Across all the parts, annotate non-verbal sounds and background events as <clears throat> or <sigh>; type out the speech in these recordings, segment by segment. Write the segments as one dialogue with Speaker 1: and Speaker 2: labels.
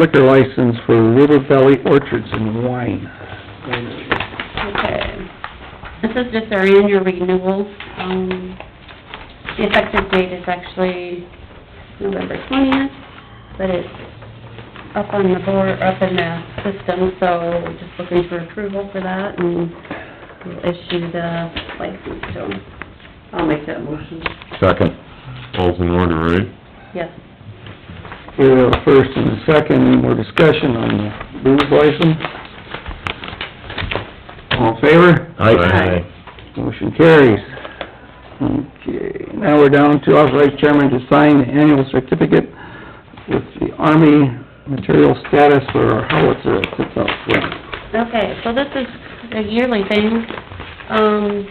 Speaker 1: liquor license for River Valley Orchards and Wine.
Speaker 2: Okay. This is just our annual renewals. Um, the effective date is actually November twentieth, but it's up on the board, up in the system, so we're just looking for approval for that and we'll issue the license to them. I'll make that motion.
Speaker 3: Second.
Speaker 4: All's in order, right?
Speaker 2: Yes.
Speaker 1: Here we have a first and a second, any more discussion on the booze license? All in favor?
Speaker 3: Aye.
Speaker 1: Motion carries. Okay, now we're down to authorize chairman to sign the annual certificate with the Army material status for our howitzer that sits out front.
Speaker 2: Okay, so this is a yearly thing, um,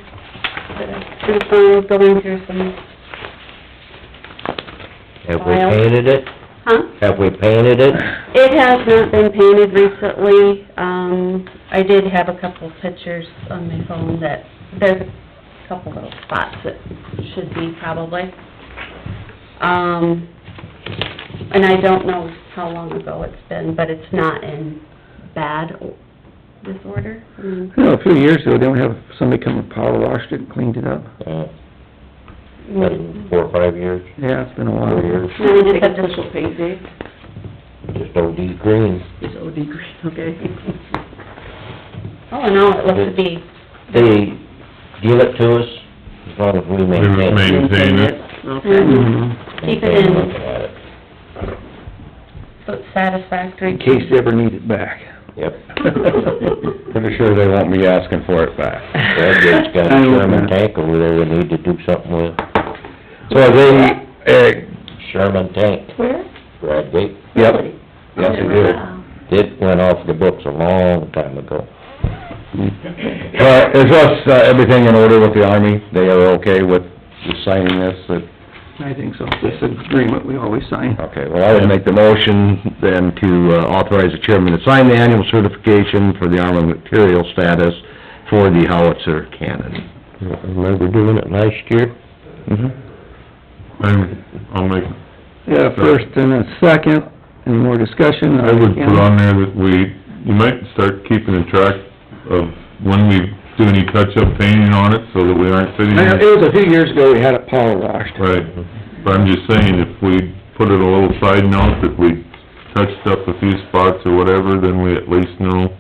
Speaker 2: that I've been found going through some,
Speaker 3: Have we painted it?
Speaker 2: huh?
Speaker 3: Have we painted it?
Speaker 2: It has not been painted recently. Um, I did have a couple pictures on my phone that, there's a couple little spots that should be probably. Um, and I don't know how long ago it's been, but it's not in bad o- disorder. Mm,
Speaker 1: You know, a few years ago, didn't we have somebody come and power washed it and cleaned it up?
Speaker 3: Uh, been Four or five years,
Speaker 1: Yeah, it's been a
Speaker 3: four
Speaker 1: while.
Speaker 3: years,
Speaker 5: Now, we take official pay day,
Speaker 3: just OD green.
Speaker 5: it's OD green, okay?
Speaker 2: All in all, it looks to be,
Speaker 3: They give it to us as long as we maintain
Speaker 4: maintain.
Speaker 3: it.
Speaker 4: Maintain it.
Speaker 5: Okay.
Speaker 1: Mhm.
Speaker 2: Keep it in.
Speaker 3: Looking at it.
Speaker 2: looks satisfactory.
Speaker 1: In
Speaker 2: <laughs>
Speaker 1: case you ever need it back.
Speaker 3: Yep. <laughs>
Speaker 6: Pretty sure they won't be asking for it back.
Speaker 3: Bradgate's got
Speaker 1: I
Speaker 3: a
Speaker 1: hope
Speaker 3: Sherman
Speaker 1: not.
Speaker 3: tank over there we need to do something with.
Speaker 6: So are they, eh,
Speaker 3: Sherman tank,
Speaker 2: Where?
Speaker 3: Bradgate.
Speaker 6: yep,
Speaker 2: Really? uh,
Speaker 6: yes, they do.
Speaker 3: It went off the books a long time ago.
Speaker 6: But is us, uh, everything in order with the Army? They are okay with just signing this? that-
Speaker 1: I think so. This is agreement we always sign.
Speaker 6: Okay, well, I would make the motion then to uh, authorize the chairman to sign the annual certification for the Army material status for the howitzer cannon.
Speaker 3: I remember doing it last year.
Speaker 4: I'm, I'll make,
Speaker 1: Yeah, first and a second, any more discussion?
Speaker 4: I would put on there that we, you might start keeping a track of when we do any touch-up painting on it, so that we aren't sitting
Speaker 1: I know,
Speaker 4: here...
Speaker 1: it was a few years ago we had it power washed.
Speaker 4: Right, but I'm just saying, if we put it a little side note, that we touched up a few spots or whatever, then we at least know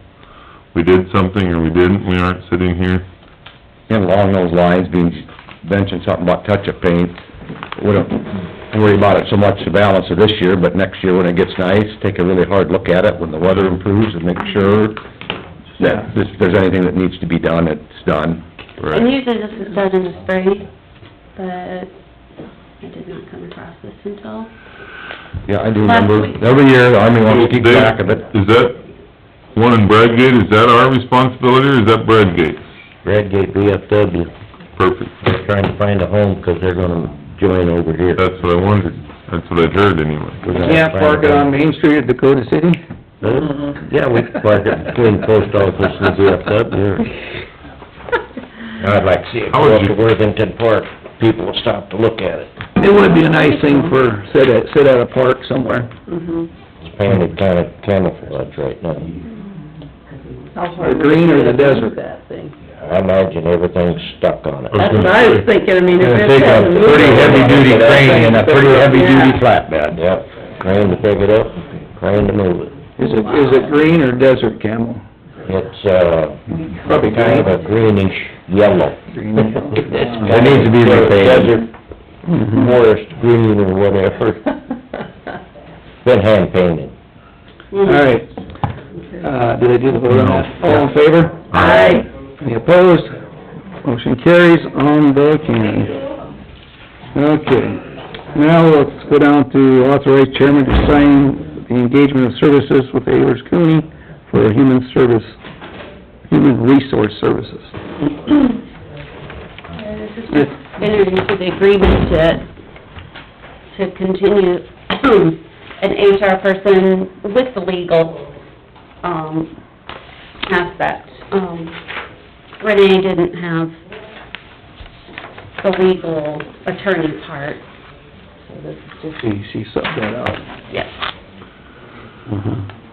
Speaker 4: we did something or we didn't, we aren't sitting here.
Speaker 6: And along those lines, being, mentioned something about touch-up paint, we don't worry about it so much the balance of this year, but next year when it gets nice, take a really hard look at it when the weather improves and make sure that if there's anything that needs to be done, it's done.
Speaker 2: And usually this is done in the spring, but I did not come across this until <clears throat>
Speaker 6: Yeah, I do remember, every year, the Army wants to keep track of it.
Speaker 4: Is that one in Bradgate, is that our responsibility or is that Bradgate's?
Speaker 3: Bradgate VFW,
Speaker 4: Perfect,
Speaker 3: they're trying to find a home because they're gonna join over here.
Speaker 4: that's what I wondered, that's what I'd heard anyway.
Speaker 3: We're gonna
Speaker 1: Can't
Speaker 3: find
Speaker 1: park it
Speaker 3: a home.
Speaker 1: on Main Street at Dakota City?
Speaker 3: Huh?
Speaker 1: Mm-hmm.
Speaker 3: Mm-hmm. Yeah, we can park it between post office and VFW. I'd like to see it
Speaker 4: How would
Speaker 3: go up to
Speaker 4: you-
Speaker 3: Worthington Park, people will stop to look at it.
Speaker 1: It would be a nice thing for, sit at, sit at a park somewhere.
Speaker 3: It's painted kind of camouflage right now.
Speaker 5: How hard
Speaker 1: The green or the
Speaker 5: would it be
Speaker 1: desert?
Speaker 5: That thing.
Speaker 3: I imagine everything's stuck on it.
Speaker 5: That's what I was thinking, I mean, if
Speaker 6: Gonna
Speaker 5: it
Speaker 6: take a
Speaker 5: hasn't moved.
Speaker 6: pretty heavy-duty crane and a pretty heavy-duty
Speaker 5: Yeah.
Speaker 6: flatbed.
Speaker 3: Yep, crane to pick it up, crane to move it.
Speaker 1: Is it, is it green or desert camel?
Speaker 3: It's, uh,
Speaker 1: Probably
Speaker 3: kind of a greenish yellow.
Speaker 1: Greenish
Speaker 3: <laughs>
Speaker 1: yellow.
Speaker 3: It
Speaker 6: needs to be repainted.
Speaker 3: Desert
Speaker 1: Mm-hmm.
Speaker 3: forest green or whatever, <laughs>
Speaker 5: <laughs>
Speaker 3: been hand painted.
Speaker 1: All right. Uh, did I do the vote on that? All in favor?
Speaker 3: Aye.
Speaker 1: Any opposed? Motion carries on the can. Okay, now let's go down to authorize chairman to sign the engagement of services with Ayers Cooney for human service, human resource services.
Speaker 2: This is just entered into the agreement to, to continue <clears throat> an HR person with the legal, um, aspect. Um, Renee didn't have the legal
Speaker 1: Hmm.
Speaker 2: attorney part, so this is just,
Speaker 1: She, she subbed that out.
Speaker 2: yes.
Speaker 1: Mhm.